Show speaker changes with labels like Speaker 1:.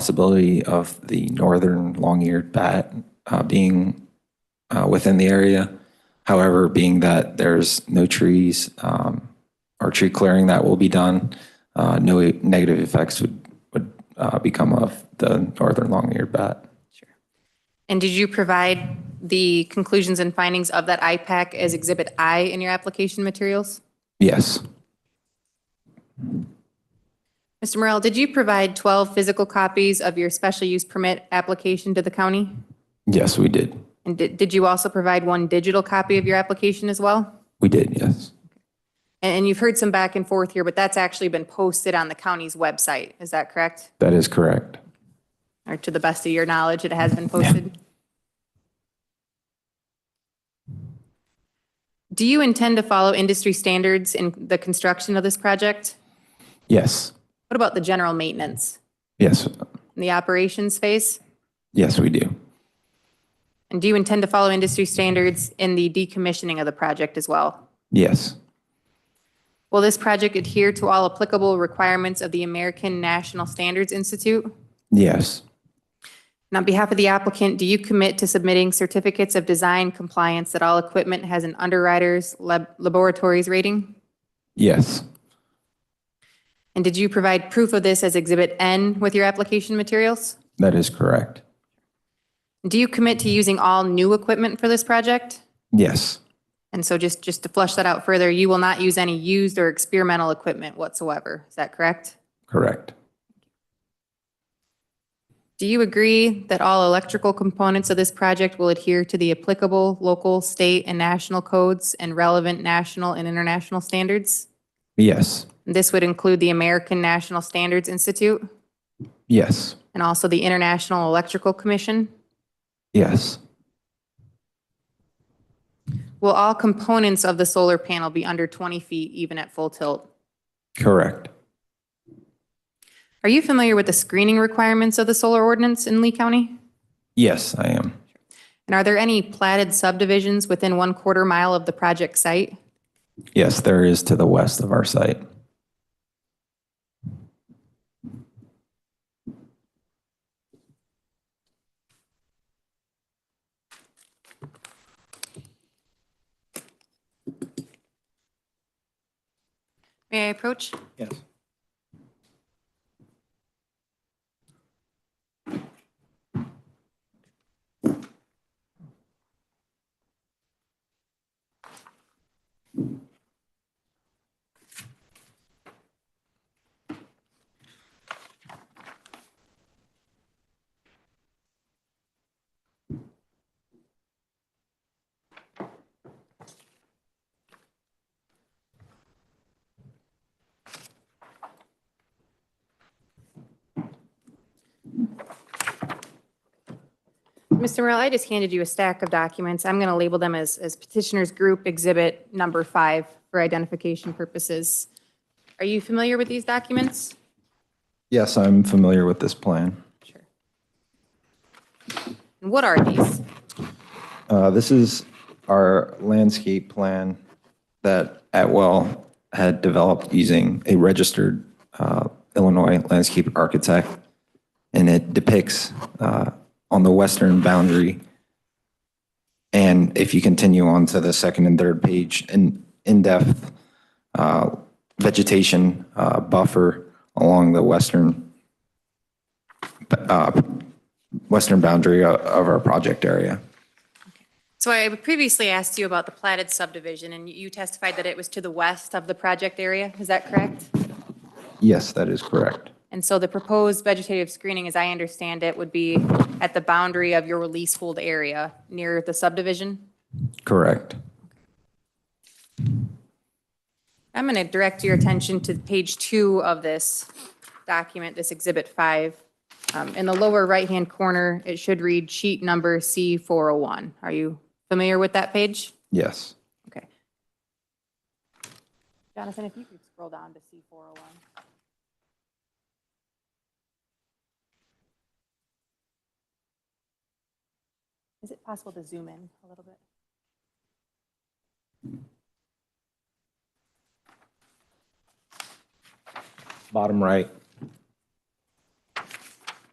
Speaker 1: possibility of the northern long-eared bat uh, being uh, within the area. However, being that there's no trees um, or tree clearing that will be done, uh, no negative effects would, would uh, become of the northern long-eared bat.
Speaker 2: And did you provide the conclusions and findings of that IPAC as Exhibit I in your application materials?
Speaker 1: Yes,
Speaker 2: Mr. Morel, did you provide 12 physical copies of your special use permit application to the county?
Speaker 1: yes, we did.
Speaker 2: And did, did you also provide one digital copy of your application as well?
Speaker 1: We did, yes.
Speaker 2: And, and you've heard some back and forth here, but that's actually been posted on the county's website, is that correct?
Speaker 1: That is correct.
Speaker 2: Or to the best of your knowledge, it has been posted? Do you intend to follow industry standards in the construction of this project?
Speaker 1: Yes,
Speaker 2: What about the general maintenance
Speaker 1: yes,
Speaker 2: and the operations phase?
Speaker 1: yes, we do.
Speaker 2: And do you intend to follow industry standards in the decommissioning of the project as well?
Speaker 1: Yes,
Speaker 2: Will this project adhere to all applicable requirements of the American National Standards Institute?
Speaker 1: yes,
Speaker 2: And on behalf of the applicant, do you commit to submitting certificates of design compliance that all equipment has an underwriter's lab- laboratories rating?
Speaker 1: yes,
Speaker 2: And did you provide proof of this as Exhibit N with your application materials?
Speaker 1: that is correct.
Speaker 2: Do you commit to using all new equipment for this project?
Speaker 1: Yes,
Speaker 2: And so just, just to flush that out further, you will not use any used or experimental equipment whatsoever. Is that correct?
Speaker 1: correct.
Speaker 2: Do you agree that all electrical components of this project will adhere to the applicable local, state, and national codes and relevant national and international standards?
Speaker 1: Yes,
Speaker 2: This would include the American National Standards Institute
Speaker 1: yes,
Speaker 2: and also the International Electrical Commission.
Speaker 1: yes,
Speaker 2: Will all components of the solar panel be under 20 feet even at full tilt?
Speaker 1: correct.
Speaker 2: Are you familiar with the screening requirements of the solar ordinance in Lee County?
Speaker 1: Yes, I am.
Speaker 2: And are there any platted subdivisions within one quarter mile of the project site?
Speaker 1: Yes, there is to the west of our site.
Speaker 2: May I approach?
Speaker 1: Yes.
Speaker 2: Mr. Morel, I just handed you a stack of documents. I'm going to label them as as petitioner's group exhibit number five for identification purposes. Are you familiar with these documents?
Speaker 1: Yes, I'm familiar with this plan.
Speaker 2: Sure. And what are these?
Speaker 1: Uh, This is our landscape plan that Atwell had developed using a registered uh, Illinois landscape architect. And it depicts uh, on the western boundary. And if you continue on to the second and third page, an in-depth uh, vegetation uh, buffer along the western, uh, western boundary o- of our project area.
Speaker 2: So I previously asked you about the platted subdivision, and you testified that it was to the west of the project area. Is that correct?
Speaker 1: Yes, that is correct.
Speaker 2: And so the proposed vegetative screening, as I understand it, would be at the boundary of your leasehold area near the subdivision?
Speaker 1: Correct.
Speaker 2: I'm going to direct your attention to page two of this document, this Exhibit 5. Um, In the lower right-hand corner, it should read sheet number C401. Are you familiar with that page?
Speaker 1: Yes.
Speaker 2: Okay. Jonathan, if you could scroll down to C401. Is it possible to zoom in a little bit?
Speaker 1: Bottom right.